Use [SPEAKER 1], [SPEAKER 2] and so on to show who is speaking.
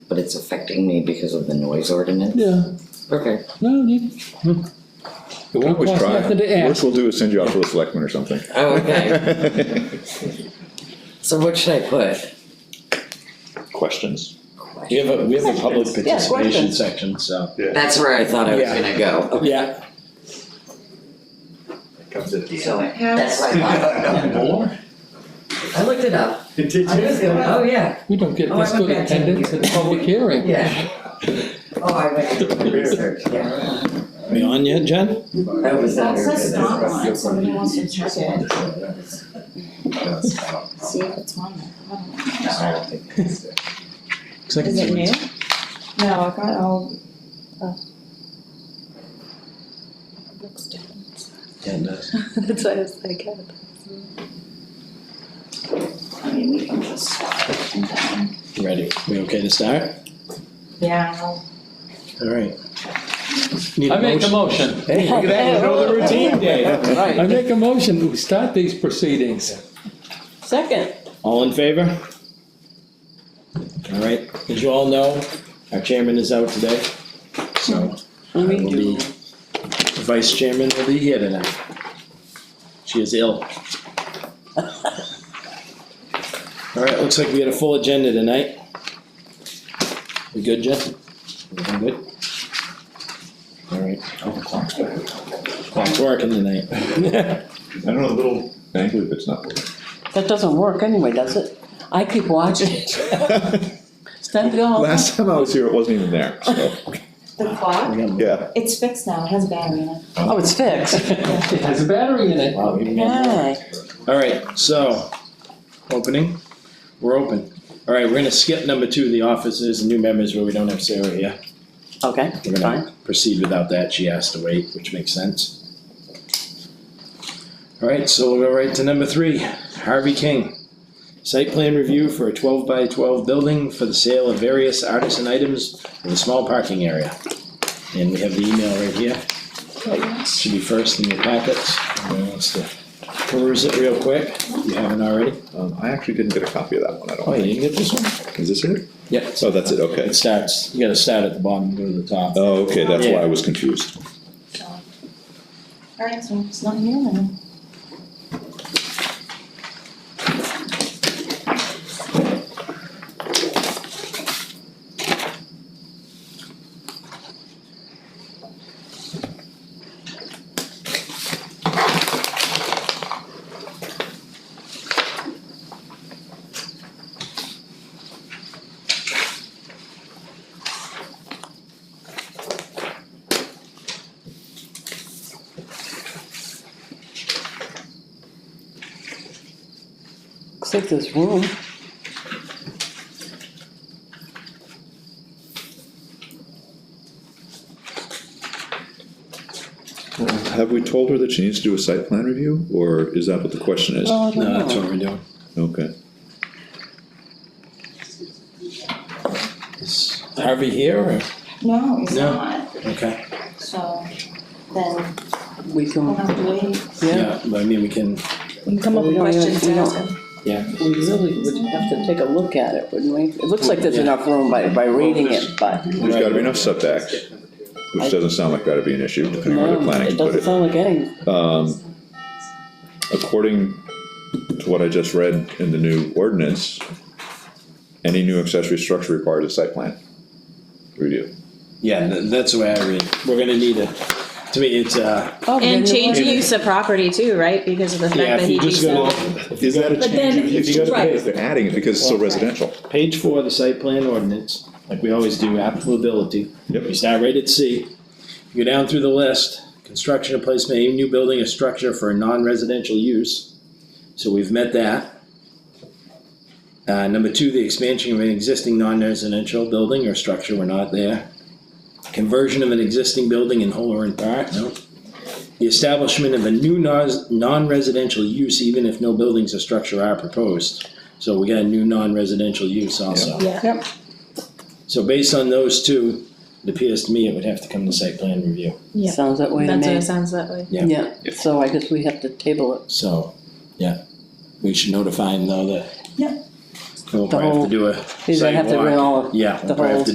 [SPEAKER 1] but it's affecting me because of the noise ordinance?
[SPEAKER 2] Yeah,
[SPEAKER 1] Okay,
[SPEAKER 2] no, you,
[SPEAKER 3] We can always
[SPEAKER 2] Cost
[SPEAKER 3] try.
[SPEAKER 2] nothing to ask.
[SPEAKER 3] Worst we'll do is send you out to the selectmen or something.
[SPEAKER 1] oh, okay. So what should I put?
[SPEAKER 3] Questions?
[SPEAKER 4] We have a, we have a public
[SPEAKER 5] Yeah,
[SPEAKER 4] participation
[SPEAKER 5] questions.
[SPEAKER 4] section, so.
[SPEAKER 1] That's where I thought I was
[SPEAKER 4] Yeah.
[SPEAKER 1] gonna go.
[SPEAKER 4] Yeah.
[SPEAKER 6] Comes at the
[SPEAKER 1] So
[SPEAKER 6] end.
[SPEAKER 1] that's what I thought.
[SPEAKER 6] More?
[SPEAKER 1] I looked it up.
[SPEAKER 6] Did you?
[SPEAKER 1] I was going, oh yeah,
[SPEAKER 2] we don't get
[SPEAKER 1] Oh,
[SPEAKER 2] this
[SPEAKER 1] I
[SPEAKER 2] good
[SPEAKER 1] went back to
[SPEAKER 2] attendance
[SPEAKER 1] you.
[SPEAKER 2] at a public hearing.
[SPEAKER 1] yeah. Oh, I went to the research, yeah.
[SPEAKER 4] We on yet, Jen?
[SPEAKER 1] That was not.
[SPEAKER 5] It says
[SPEAKER 1] very good.
[SPEAKER 5] not on, somebody wants to check it, see
[SPEAKER 6] No,
[SPEAKER 5] if it's on there. I don't know.
[SPEAKER 6] I don't think it's there.
[SPEAKER 4] Looks like
[SPEAKER 5] Is
[SPEAKER 4] it's-
[SPEAKER 5] it new? No, I got all, oh. Looks different.
[SPEAKER 4] Yeah, it does.
[SPEAKER 5] That's why I was like, yeah. I mean, we can just swap it and then-
[SPEAKER 4] Ready, we okay to start?
[SPEAKER 5] Yeah, I'll
[SPEAKER 4] All right. Need
[SPEAKER 2] I make a motion.
[SPEAKER 4] Hey, look at that, you know the routine, Dave.
[SPEAKER 2] I make a motion to start these proceedings.
[SPEAKER 5] Second.
[SPEAKER 4] All in favor? All right, as you all know, our chairman is out today, so I will be, the vice chairman will be here tonight. She is ill. All right, looks like we had a full agenda tonight. We good, Jen? Everything good? All right. Oh, Clock's working tonight.
[SPEAKER 3] I don't know, a little angry if it's not working.
[SPEAKER 7] That doesn't work anyway, does it? I keep watching it. Stand
[SPEAKER 1] Oh.
[SPEAKER 7] going.
[SPEAKER 3] Last time I was here, it wasn't even there, so,
[SPEAKER 5] The clock?
[SPEAKER 3] yeah.
[SPEAKER 5] It's fixed now, it has battery in it.
[SPEAKER 7] Oh, it's fixed.
[SPEAKER 2] It has a battery in it.
[SPEAKER 4] Wow, even got more.
[SPEAKER 7] Yay.
[SPEAKER 4] All right, so, opening, we're open. All right, we're gonna skip number two, the officers and new members where we don't have Sarah here.
[SPEAKER 7] Okay,
[SPEAKER 4] We're gonna proceed without that, she asked to wait, which makes sense. All right, so we'll go right to number three, Harvey King. Site plan review for a twelve by twelve building for the sale of various artisan items in a small parking area. And we have the email right here. It Should be first in your packets, Anyone wants to peruse it real quick, if you haven't already.
[SPEAKER 3] Um, I actually didn't get a copy of that one, I
[SPEAKER 4] Oh,
[SPEAKER 3] don't
[SPEAKER 4] you
[SPEAKER 3] think.
[SPEAKER 4] didn't get this one?
[SPEAKER 3] Is this it?
[SPEAKER 4] Yeah.
[SPEAKER 3] Oh, that's it, okay.
[SPEAKER 4] It starts, you gotta start at the bottom, and go to the top.
[SPEAKER 3] Oh, okay, that's why I was confused.
[SPEAKER 5] Alright, so it's not here then.
[SPEAKER 7] looks like there's room.
[SPEAKER 3] Have we told her that she needs to do a site plan review, or is that what the question is?
[SPEAKER 7] Oh, I
[SPEAKER 4] No,
[SPEAKER 7] don't
[SPEAKER 4] that's
[SPEAKER 7] know.
[SPEAKER 4] what we're doing.
[SPEAKER 3] Okay.
[SPEAKER 4] Is Harvey here or?
[SPEAKER 5] No, it's
[SPEAKER 4] No.
[SPEAKER 5] not,
[SPEAKER 4] Okay.
[SPEAKER 5] so then
[SPEAKER 7] We
[SPEAKER 5] we'll
[SPEAKER 7] can,
[SPEAKER 5] have to wait.
[SPEAKER 7] yeah.
[SPEAKER 4] but I mean, we can,
[SPEAKER 5] You
[SPEAKER 7] come up with Yeah, yeah, questions to we ask don't-
[SPEAKER 4] yeah.
[SPEAKER 7] We really would have to take a look at it, wouldn't we? It looks like there's
[SPEAKER 4] Yeah.
[SPEAKER 7] enough room by, by reading it, but
[SPEAKER 3] There's gotta be enough setbacks, which doesn't sound like that'd be an issue, depending on where the
[SPEAKER 7] no,
[SPEAKER 3] planning
[SPEAKER 7] um,
[SPEAKER 3] can
[SPEAKER 7] it
[SPEAKER 3] put
[SPEAKER 7] doesn't
[SPEAKER 3] it.
[SPEAKER 7] sound like any,
[SPEAKER 3] Um, according to what I just read in the new ordinance, any new accessory structure requires a site plan review.
[SPEAKER 4] Yeah, th- that's the way I read. it. We're gonna need a, to me, it's uh
[SPEAKER 7] oh, then
[SPEAKER 5] And
[SPEAKER 7] it
[SPEAKER 5] change
[SPEAKER 7] was-
[SPEAKER 5] the use of property too, right, because of the fact
[SPEAKER 4] Yeah,
[SPEAKER 5] that
[SPEAKER 4] if
[SPEAKER 5] he
[SPEAKER 4] you just go,
[SPEAKER 5] rezoned.
[SPEAKER 3] Is that a
[SPEAKER 5] But change then- of use?
[SPEAKER 3] If you gotta
[SPEAKER 5] right.
[SPEAKER 3] pay, they're adding it because it's still residential.
[SPEAKER 4] page four of the site plan ordinance, like we always do, applicability.
[SPEAKER 3] Yep.
[SPEAKER 4] You start right at C, you go down through the list, construction or placement, of a new building or structure for a non-residential use. So we've met that. Uh, number two, the expansion of an existing non-residential building or structure, we're not there. Conversion of an existing building in whole or in part, no. The establishment of a new nos- non-residential use, even if no buildings or structure are proposed. So we got a new non-residential use also.
[SPEAKER 5] Yeah.
[SPEAKER 7] Yep.
[SPEAKER 4] So based on those two, it appears to me it would have to come to site plan review,
[SPEAKER 5] Yeah.
[SPEAKER 7] sounds that way to
[SPEAKER 5] That's what it
[SPEAKER 7] me.
[SPEAKER 5] sounds that way.
[SPEAKER 4] yeah.
[SPEAKER 7] Yeah, so I guess we have to table it.
[SPEAKER 4] so, yeah. We should notify them though that.
[SPEAKER 5] Yep.
[SPEAKER 4] We'll
[SPEAKER 7] The
[SPEAKER 4] probably have to
[SPEAKER 7] whole-
[SPEAKER 4] do a
[SPEAKER 7] You're gonna have to
[SPEAKER 4] sidewalk.
[SPEAKER 7] bring all of
[SPEAKER 4] Yeah,
[SPEAKER 7] the
[SPEAKER 4] we'll probably have
[SPEAKER 7] whole-
[SPEAKER 4] to